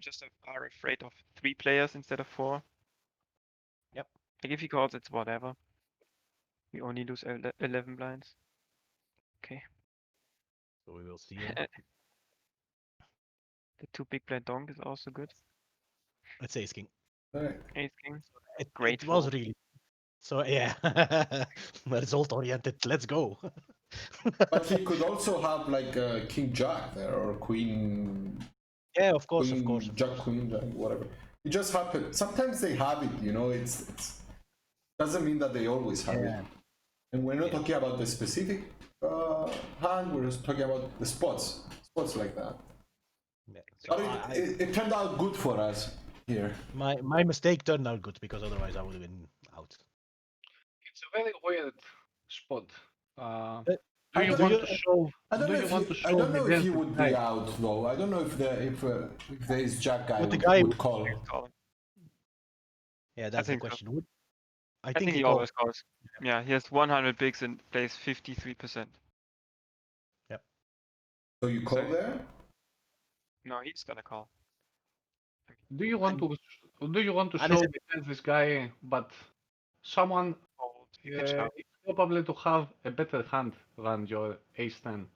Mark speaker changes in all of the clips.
Speaker 1: just are afraid of three players instead of four.
Speaker 2: Yep.
Speaker 1: Like if he calls, it's whatever. We only lose ele- 11 blinds.
Speaker 2: So we will see.
Speaker 1: Uh, The two big blind donk is also good.
Speaker 2: It's ace king.
Speaker 3: Alright.
Speaker 1: Ace king.
Speaker 2: It,
Speaker 1: Great
Speaker 2: It was
Speaker 1: fold.
Speaker 2: really. So yeah, result oriented. Let's go.
Speaker 3: But he could also have like uh, King Jack there or Queen,
Speaker 2: yeah, of course,
Speaker 3: Queen
Speaker 2: of course. of
Speaker 3: Mm, Jack
Speaker 2: course.
Speaker 3: Queen Jack whatever. It just happens. Sometimes they have it, you know. It's, it's doesn't mean that they always have it. And we're not talking about the specific uh, hand. We're just talking about the spots, spots like that.
Speaker 2: Yeah. So
Speaker 3: But
Speaker 2: I-
Speaker 3: it, it, it turned out good for us here.
Speaker 2: my my mistake turned out good because otherwise I would have been out.
Speaker 4: It's a very weird spot. Uh,
Speaker 2: I
Speaker 4: do you
Speaker 2: don't-
Speaker 4: want
Speaker 2: you-
Speaker 4: to solve?
Speaker 3: I don't
Speaker 4: do
Speaker 3: know
Speaker 4: you
Speaker 3: if
Speaker 4: want
Speaker 3: he,
Speaker 4: to
Speaker 3: I
Speaker 4: solve
Speaker 3: don't
Speaker 4: the
Speaker 3: know if he
Speaker 4: death
Speaker 3: would
Speaker 4: tonight?
Speaker 3: be out though. I don't know if the if, uh, if there is Jack guy
Speaker 2: But
Speaker 3: would,
Speaker 2: the guy-
Speaker 3: would
Speaker 1: Oh.
Speaker 3: call.
Speaker 1: Call.
Speaker 2: Yeah, that's the
Speaker 1: think so.
Speaker 2: question. Would, I,
Speaker 1: I
Speaker 2: think, he
Speaker 1: always calls. Yeah, he has 100 bigs and plays 53%.
Speaker 3: So you call
Speaker 1: So-
Speaker 3: there?
Speaker 1: No, he's gonna call.
Speaker 4: Do you want to? Do you want to
Speaker 2: And it's
Speaker 4: solve against this guy? But someone
Speaker 1: Fold,
Speaker 4: uh,
Speaker 1: pitch out.
Speaker 4: is probably to have a better hand than your ace ten.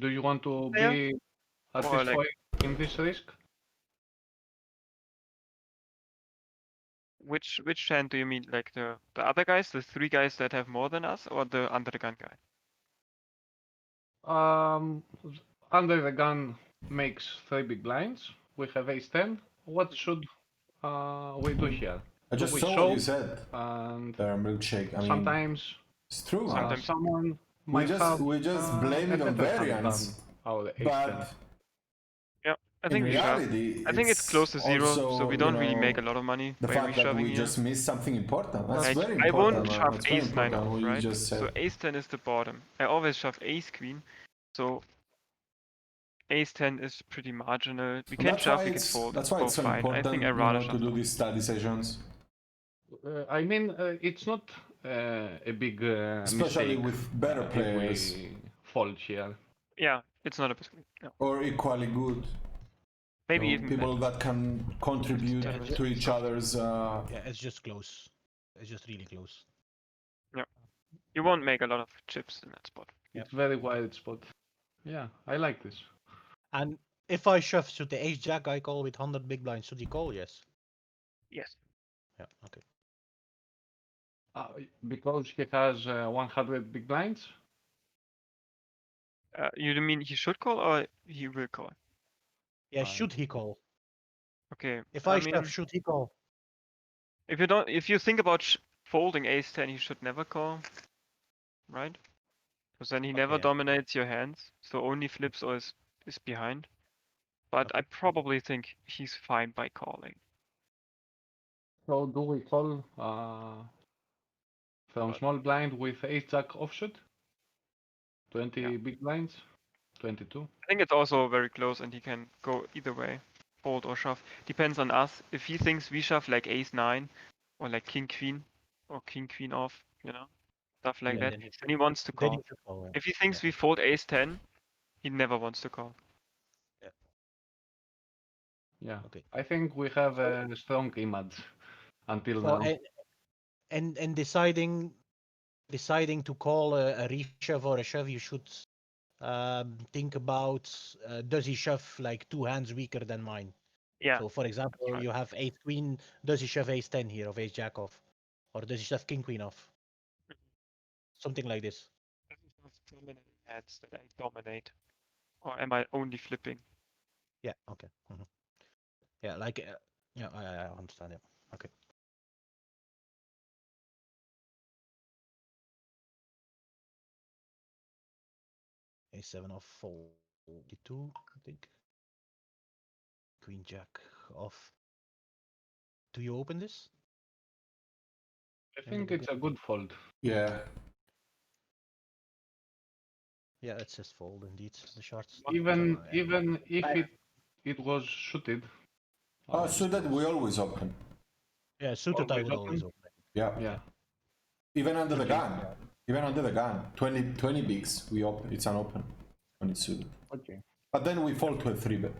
Speaker 4: Do you want to
Speaker 1: Yeah.
Speaker 4: be at
Speaker 1: Or
Speaker 4: this
Speaker 1: like-
Speaker 4: point in this risk?
Speaker 1: Which which hand do you mean? Like the the other guys, the three guys that have more than us, or the under the gun guy?
Speaker 4: Um, under the gun makes three big blinds. We have ace ten. What should uh, we do here?
Speaker 3: I just
Speaker 4: we
Speaker 3: saw
Speaker 4: show-
Speaker 3: what you said.
Speaker 4: And
Speaker 3: Their uh, milkshake. I mean,
Speaker 4: sometimes
Speaker 3: it's true.
Speaker 4: uh,
Speaker 3: huh?
Speaker 1: Sometimes-
Speaker 4: someone
Speaker 3: we
Speaker 4: might
Speaker 3: just
Speaker 4: have
Speaker 3: we just
Speaker 4: uh,
Speaker 3: blame
Speaker 4: a
Speaker 3: it on
Speaker 4: better hand
Speaker 3: variance,
Speaker 4: than Our ace ten.
Speaker 3: but
Speaker 1: I
Speaker 3: in
Speaker 1: think we shove.
Speaker 3: reality,
Speaker 1: I think it's close to zero,
Speaker 3: also,
Speaker 1: so we
Speaker 3: you
Speaker 1: don't really
Speaker 3: know,
Speaker 1: make a lot of money
Speaker 3: The
Speaker 1: by
Speaker 3: fact that
Speaker 1: reshoving
Speaker 3: we
Speaker 1: here.
Speaker 3: just missed something important. That's
Speaker 1: like,
Speaker 3: very
Speaker 1: I
Speaker 3: important.
Speaker 1: won't
Speaker 3: man.
Speaker 1: shove
Speaker 3: That's very
Speaker 1: ace nine
Speaker 3: important
Speaker 1: off,
Speaker 3: what you
Speaker 1: right?
Speaker 3: just said.
Speaker 1: So ace ten is the bottom. I always shove ace queen, so ace ten is pretty marginal. We can
Speaker 3: that's why
Speaker 1: shove, we can
Speaker 3: it's-
Speaker 1: fold.
Speaker 3: That's why
Speaker 1: both
Speaker 3: it's so
Speaker 1: fine.
Speaker 3: important
Speaker 1: I think I
Speaker 3: you
Speaker 1: rather
Speaker 3: know, to
Speaker 1: shove.
Speaker 3: do these study sessions,
Speaker 4: Uh, I mean, uh, it's not uh, a big uh,
Speaker 3: especially
Speaker 4: mistake
Speaker 3: with better
Speaker 4: if
Speaker 3: players
Speaker 4: we fold here.
Speaker 1: Yeah, it's not a biscuit. No.
Speaker 3: or equally good
Speaker 1: Maybe
Speaker 4: No,
Speaker 1: even
Speaker 3: people that can contribute
Speaker 1: Yeah.
Speaker 3: to each other's. Uh,
Speaker 2: Yeah, it's just close. It's just really close.
Speaker 1: you won't make a lot of chips in that spot.
Speaker 2: Yeah.
Speaker 4: It's very wide spot. Yeah, I like this.
Speaker 2: And if I shove, should the ace jack I call with hundred big blinds? Should he call? Yes.
Speaker 1: Yes.
Speaker 2: Yeah. Okay.
Speaker 4: Uh, because he has uh, 100 big blinds.
Speaker 1: Uh, you mean he should call or he will call?
Speaker 2: Yeah.
Speaker 4: Fine.
Speaker 2: Should he call?
Speaker 1: Okay.
Speaker 2: If I,
Speaker 1: mean,
Speaker 2: shove, should he call?
Speaker 1: if you don't, if you think about sh- folding ace ten, he should never call, right? Because then he never
Speaker 2: yeah.
Speaker 1: dominates your hands, so only flips or is, is behind. But I probably think he's fine by calling.
Speaker 4: So do we call uh, from small blind with ace jack offsuit? 20 big blinds? 22?
Speaker 1: I think it's also very close, and he can go either way, fold or shove. Depends on us. If he thinks we shove like ace nine, or like king queen, or king queen off, you know, stuff like
Speaker 2: Yeah,
Speaker 1: that.
Speaker 2: then he should-
Speaker 1: Then he wants to
Speaker 2: then
Speaker 1: call.
Speaker 2: he should call, yeah.
Speaker 1: If he thinks we fold ace ten, he never wants to call.
Speaker 4: Yeah.
Speaker 2: Okay.
Speaker 4: I think we have a strong image until
Speaker 2: Well,
Speaker 4: now.
Speaker 2: and, and and deciding deciding to call a, a reshove or a shove, you should um, think about uh, does he shove like two hands weaker than mine?
Speaker 1: Yeah.
Speaker 2: So for example,
Speaker 1: right.
Speaker 2: you have ace queen. Does he shove ace ten here of ace jack off, or does he shove king queen off?
Speaker 1: Mm-hmm.
Speaker 2: Something like this.
Speaker 1: I don't have dominant hands that I dominate, or am I only flipping?
Speaker 2: Yeah. Okay. mhm. Yeah, like uh, yeah, I, I understand it. Okay. A seven of forty-two, I think. Queen Jack off. Do you open this?
Speaker 4: I think it's a good fold.
Speaker 3: yeah,
Speaker 2: Yeah, it says fold indeed. The shards.
Speaker 4: Even
Speaker 2: So, yeah.
Speaker 4: even if
Speaker 2: I-
Speaker 4: it it was suited.
Speaker 3: oh,
Speaker 4: uh,
Speaker 3: so that we always open,
Speaker 2: yeah, suited I
Speaker 4: always
Speaker 2: would always open.
Speaker 3: yeah,
Speaker 4: Yeah.
Speaker 3: even under the gun, even under the gun, 20, 20 bigs, we open. It's an open when it's suited.
Speaker 4: Okay.
Speaker 3: But then we fall to a three bet.